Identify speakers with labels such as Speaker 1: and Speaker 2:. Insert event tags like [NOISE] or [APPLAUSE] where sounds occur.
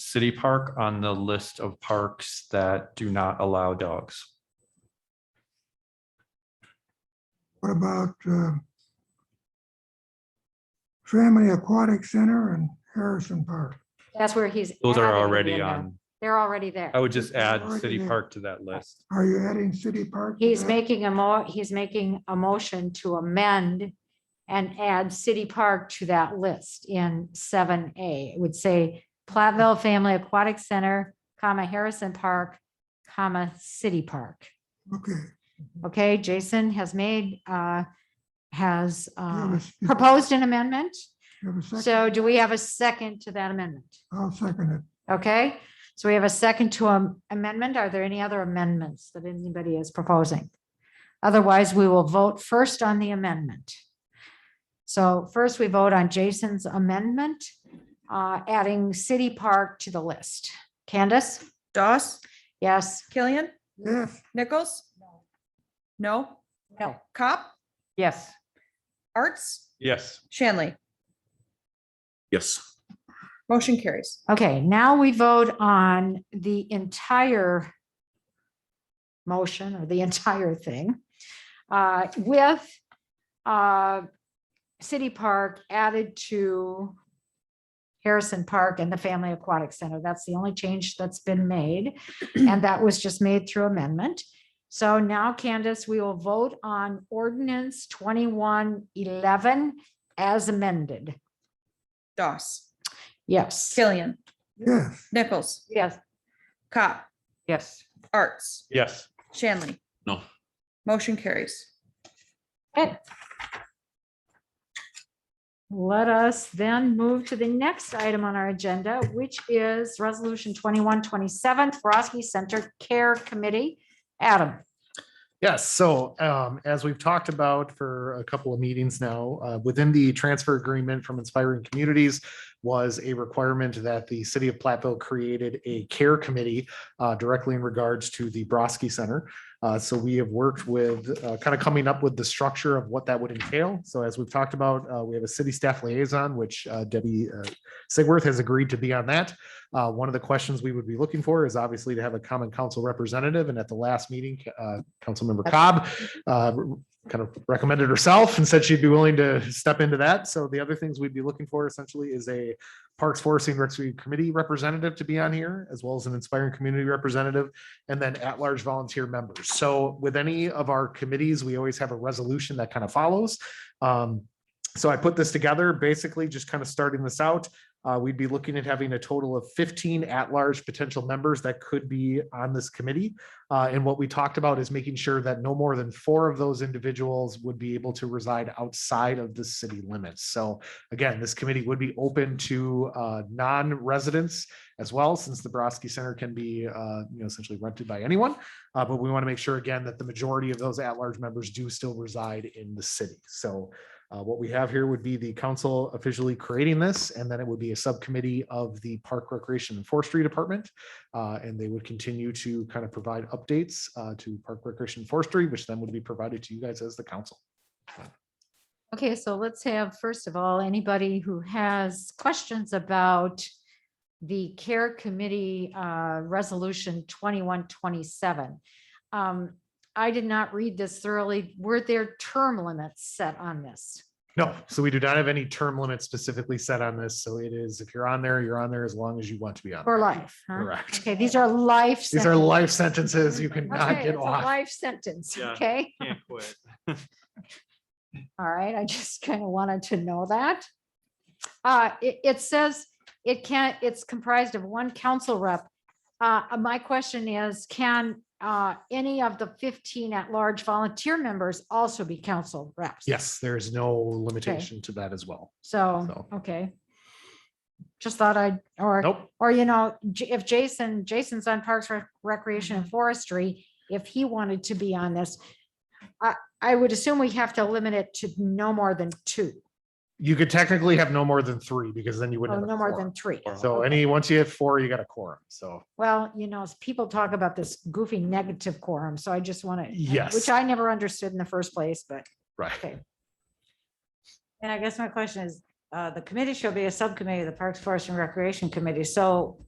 Speaker 1: City Park on the list of parks that do not allow dogs.
Speaker 2: What about uh, Family Aquatic Center and Harrison Park?
Speaker 3: That's where he's.
Speaker 1: Those are
Speaker 3: adding
Speaker 1: already
Speaker 3: them.
Speaker 1: on. Oh.
Speaker 3: They're already there.
Speaker 1: I would just add
Speaker 2: Already
Speaker 1: City
Speaker 2: there.
Speaker 1: Park to that list.
Speaker 2: Are you adding city park? to
Speaker 3: He's
Speaker 2: that?
Speaker 3: making a mo, he's making a motion to amend and add City Park to that list in seven A. It would say Platteville Family Aquatic Center, comma Harrison Park, comma City Park.
Speaker 2: Okay.
Speaker 3: Okay, Jason has made, uh, has, uh,
Speaker 2: Do you have a-
Speaker 3: proposed an amendment.
Speaker 2: do you have a second?
Speaker 3: So do we have a second to that amendment?
Speaker 2: I'll second it.
Speaker 3: Okay, so we have a second to am- amendment. Are there any other amendments that anybody is proposing? Otherwise, we will vote first on the amendment. So first, we vote on Jason's amendment, uh, adding City Park to the list. Candace?
Speaker 4: Doss,
Speaker 3: Yes?
Speaker 4: Killian,
Speaker 2: Yes,
Speaker 4: Nichols? No,
Speaker 3: No.
Speaker 4: Cop,
Speaker 3: Yes.
Speaker 4: Arts,
Speaker 1: Yes.
Speaker 4: Shanley,
Speaker 5: Yes.
Speaker 4: motion carries.
Speaker 3: Okay, now we vote on the entire motion or the [LAUGHS] entire thing uh, with uh, City Park added to Harrison Park and the Family Aquatic Center. That's the only change that's been made, and that was just made through amendment. So now, Candace, we will vote on ordinance 2111 as amended.
Speaker 4: Doss,
Speaker 3: Yes.
Speaker 4: Killian,
Speaker 2: yes,
Speaker 4: Nichols,
Speaker 3: Yes.
Speaker 4: Cop,
Speaker 3: Yes.
Speaker 4: Arts,
Speaker 1: Yes.
Speaker 4: Shanley.
Speaker 5: No.
Speaker 4: Motion carries.
Speaker 3: Okay. Let us then move to the next item on our agenda, which is Resolution 2127, Broski Center Care Committee. Adam.
Speaker 6: Yes, so um, as we've talked about for a couple of meetings now, uh, within the transfer agreement from Inspiring Communities was a requirement that the city of Platteville created a care committee uh, directly in regards to the Broski Center. Uh, So we have worked with, kind of coming up with the structure of what that would entail. So as we've talked about, uh, we have a city staff liaison, which uh, Debbie uh, Sigworth has agreed to be on that. Uh, One of the questions we would be looking for is obviously to have a common council representative. And at the last meeting, uh, Councilmember Cobb uh, kind of recommended herself and said she'd be willing to step into that. So the other things we'd be looking for essentially is a Parks Forest and Recreation Committee representative to be on here, as well as an inspiring community representative, and then at-large volunteer members. So with any of our committees, we always have a resolution that kind of follows. Um, So I put this together, basically just kind of starting this out. Uh, We'd be looking at having a total of 15 at-large potential members that could be on this committee. Uh, and what we talked about is making sure that no more than four of those individuals would be able to reside outside of the city limits. So again, this committee would be open to uh, non-residents as well, since the Broski Center can be, uh, you know, essentially rented by anyone. Uh, But we want to make sure again that the majority of those at-large members do still reside in the city. So uh, what we have here would be the council officially creating this, and then it would be a subcommittee of the Park Recreation and Forestry Department uh, and they would continue to kind of provide updates uh, to Park Recreation and Forestry, which then would be provided to you guys as the council.
Speaker 3: Okay, so let's have, first of all, anybody who has questions about the Care Committee uh, Resolution 2127. Um, I did not read this thoroughly. Were there term limits set on this?
Speaker 6: No, so we do not have any term limits specifically set on this. So it is, if you're on there, you're on there as long as you want to be on.
Speaker 3: For
Speaker 6: there.
Speaker 3: life, huh?
Speaker 6: Correct.
Speaker 3: Okay, these are life.
Speaker 6: These are
Speaker 3: sentences.
Speaker 6: life sentences. You cannot
Speaker 3: Okay,
Speaker 6: get
Speaker 3: it's a
Speaker 6: off.
Speaker 3: life sentence,
Speaker 1: Yeah.
Speaker 3: okay?
Speaker 1: Can't quit.
Speaker 3: All right, I just kind of wanted to know that. Uh, it, it says it can't, it's comprised of one council rep. Uh, uh, my question is, can, uh, any of the fifteen at-large volunteer members also be council reps?
Speaker 6: Yes, there is no limitation to that as well.
Speaker 3: So,
Speaker 6: So.
Speaker 3: okay. Just thought I'd, or.
Speaker 6: Nope,
Speaker 3: Or, you know, J- if Jason, Jason's on Parks Rec- Recreation
Speaker 7: Mm-hmm.
Speaker 3: and Forestry, if he wanted to be on this, I, I would assume we have to limit it to no more than two,
Speaker 6: you could technically have no more than three because then you
Speaker 3: or
Speaker 6: wouldn't. have a
Speaker 3: Oh, no more
Speaker 6: quorum.
Speaker 3: than three.
Speaker 6: So any, once you have four, you got a quorum. So
Speaker 3: Well, you know, as people talk about this goofy negative quorum, so I just want to,
Speaker 6: yes,
Speaker 3: which I never understood in the first place, but
Speaker 6: right.
Speaker 7: And I guess my question is, uh, the committee shall be a subcommittee of the Parks, Forest and Recreation Committee. So